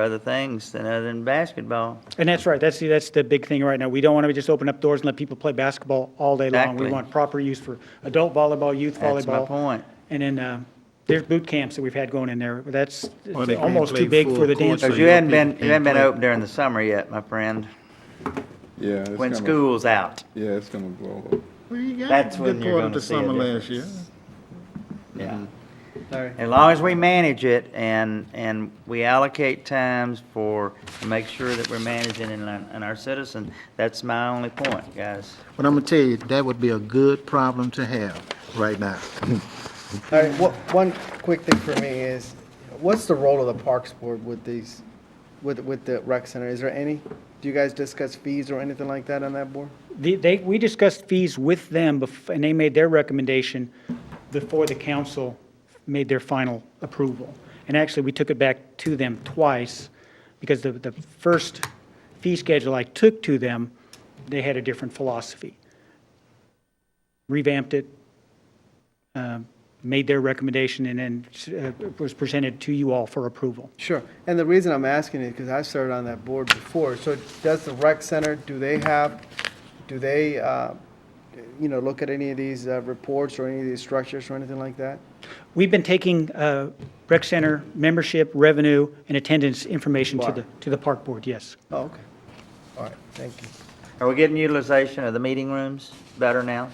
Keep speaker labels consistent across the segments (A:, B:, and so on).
A: other things than other than basketball.
B: And that's right, that's, the- that's the big thing right now. We don't want to just open up doors and let people play basketball all day long.
A: Exactly.
B: We want proper use for adult volleyball, youth volleyball.
A: That's my point.
B: And then uh, there's boot camps that we've had going in there. That's it's
C: Well, they can't
B: almost
C: play
B: too big for
C: full
B: the
C: court,
B: dance.
C: so
A: Because you
C: your
A: hadn't been,
C: people
A: you hadn't
C: can't
A: been
C: play.
A: open during the summer yet, my friend,
D: Yeah. it's
A: when
D: gonna-
A: school's out.
D: Yeah, it's gonna blow up.
C: Well, you got
A: That's
C: a good
A: when you're
C: part
A: gonna
C: of the
A: see a
C: summer last year.
A: difference.
B: Mm-hmm.
A: Yeah. As long as we manage it and, and we allocate times for, to make sure that we're managing and, our- and our citizen, that's my only point, guys.
E: But I'm gonna tell you, that would be a good problem to have right now.
F: All right, wha- one quick thing for me is, what's the role of the Parks Board with these, with, with the rec center? Is there any? Do you guys discuss fees or anything like that on that board?
B: The- They, we discussed fees with them, bef- and they made their recommendation before the council made their final approval. And actually, we took it back to them twice, because the, the first fee schedule I took to them, they had a different philosophy. Revamped it, um, made their recommendation, and then uh, was presented to you all for approval.
F: Sure. And the reason I'm asking is because I've served on that board before. So does the rec center, do they have, do they, uh, you know, look at any of these uh, reports or any of these structures or anything like that?
B: We've been taking uh, rec center membership, revenue, and attendance information to the, to the park board, yes.
F: Oh, okay. All right, thank you.
A: Are we getting utilization of the meeting rooms better now?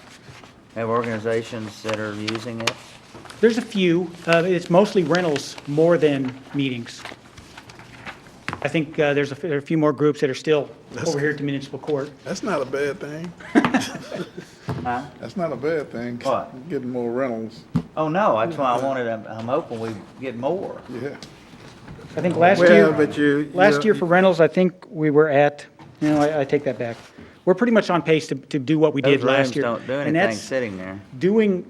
A: Have organizations that are using it?
B: There's a few. Uh, It's mostly rentals more than meetings. I think uh, there's a f- there are a few more groups that are still over here at the municipal court.
D: That's not a bad thing. That's not a bad thing.
A: What?
D: Getting more rentals,
A: Oh, no, that's why I wanted, I'm, I'm hoping we get more.
D: yeah.
B: I think last
C: Well,
B: year,
C: but you. you know,
B: last year for rentals, I think we were at, no, I I take that back. We're pretty much on pace to to do what we
A: Those
B: did
A: rooms
B: last year.
A: don't do
B: And
A: anything
B: that's-
A: sitting there.
B: doing,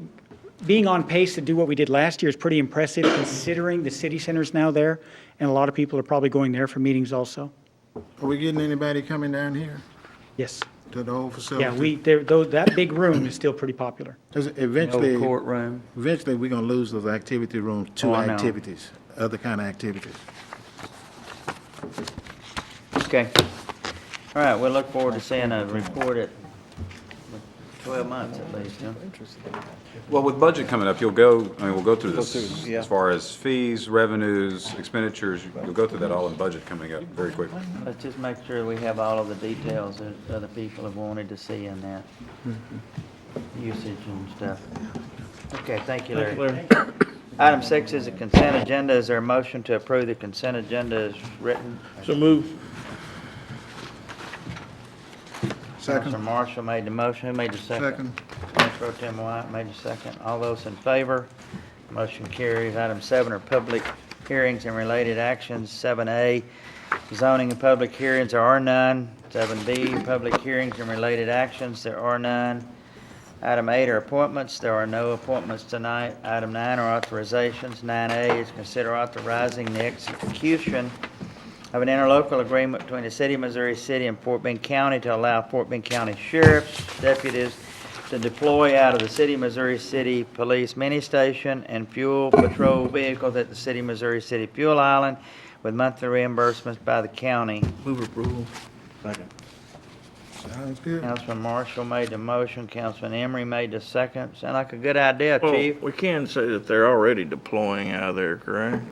B: being on pace to do what we did last year is pretty impressive considering the city center's now there, and a lot of people are probably going there for meetings also.
E: Are we getting anybody coming down here
B: Yes.
E: to the old facility?
B: Yeah, we, there, though, that big room is still pretty popular.
E: 'Cause
A: Old
E: Eventually,
A: courtroom.
E: eventually, we're gonna lose those activity rooms
A: Oh,
E: to
A: I know.
E: activities, other kind of activities.
A: Okay. All right, we'll look forward to seeing a report at twelve months at least, huh?
G: Well, with budget coming up, you'll go, I mean, we'll go through this as far as fees, revenues, expenditures, you'll go through that all in budget coming up very quickly.
A: Let's just make sure we have all of the details that other people have wanted to see in that usage and stuff. Okay, thank you, Larry. Item six is a consent agenda. Is there a motion to approve the consent agenda as written?
C: So move.
A: Counselor Marshall made the motion. Who made the second? Mayor Pro Tim White made the second. All those in favor? Motion carries. Item seven are public hearings and related actions. Seven A, zoning and public hearings, there are none. Seven B, public hearings and related actions, there are none. Item eight are appointments, there are no appointments tonight. Item nine are authorizations. Nine A is consider authorizing the execution of an interlocal agreement between the city of Missouri City and Fort Bend County to allow Fort Bend County sheriffs, deputies to deploy out of the city of Missouri City Police Mini Station and fuel patrol vehicles at the city of Missouri City Fuel Island with monthly reimbursements by the county.
E: Sounds good.
A: Councilman Marshall made the motion, Councilman Emery made the second. Sound like a good idea,
H: Well,
A: chief.
H: we can say that they're already deploying out of there, correct?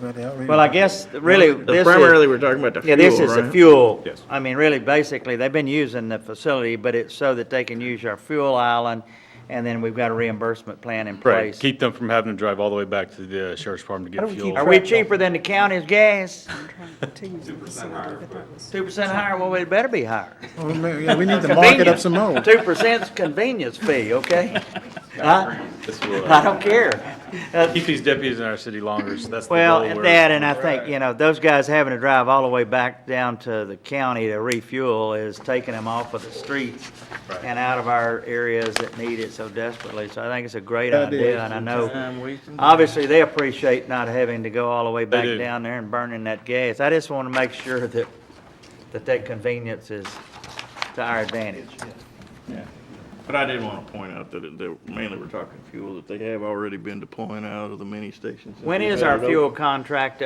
E: Well, they already-
A: Well, I guess really
H: The-
A: this is.
H: Primarily, we're talking about the
A: Yeah,
H: fuel, right?
A: this is the fuel.
G: Yes.
A: I mean, really, basically, they've been using the facility, but it's so that they can use our fuel island, and then we've got a reimbursement plan in
I: Right,
A: place.
I: keep them from having to drive all the way back to the uh, sheriff's department to
B: Why
I: get
B: don't we keep
I: fuel.
A: Are we cheaper than the county's gas?
G: Well,
A: Two percent higher, well, it better be higher.
E: Well, man, yeah, we need to mark it up some more.
A: Two percent's convenience fee, okay? Huh? I don't care. Uh,
I: Keep these deputies in our city longer, so that's the goal.
A: Well, and
I: we're-
A: that, and I think, you know, those guys having to drive all the way back down to the county to refuel is taking them off of the streets and out of our areas that need it so desperately. So I think it's a great idea, and I know, obviously, they appreciate not having to go all the way back
I: do.
A: down there and burning that gas. I just want to make sure that, that that convenience is to our advantage.
H: But I did want to point out that it- that mainly we're talking fuel, that they have already been deploying out of the mini stations. since
A: When
H: we've
A: is
H: had
A: our
H: it open.
A: fuel contract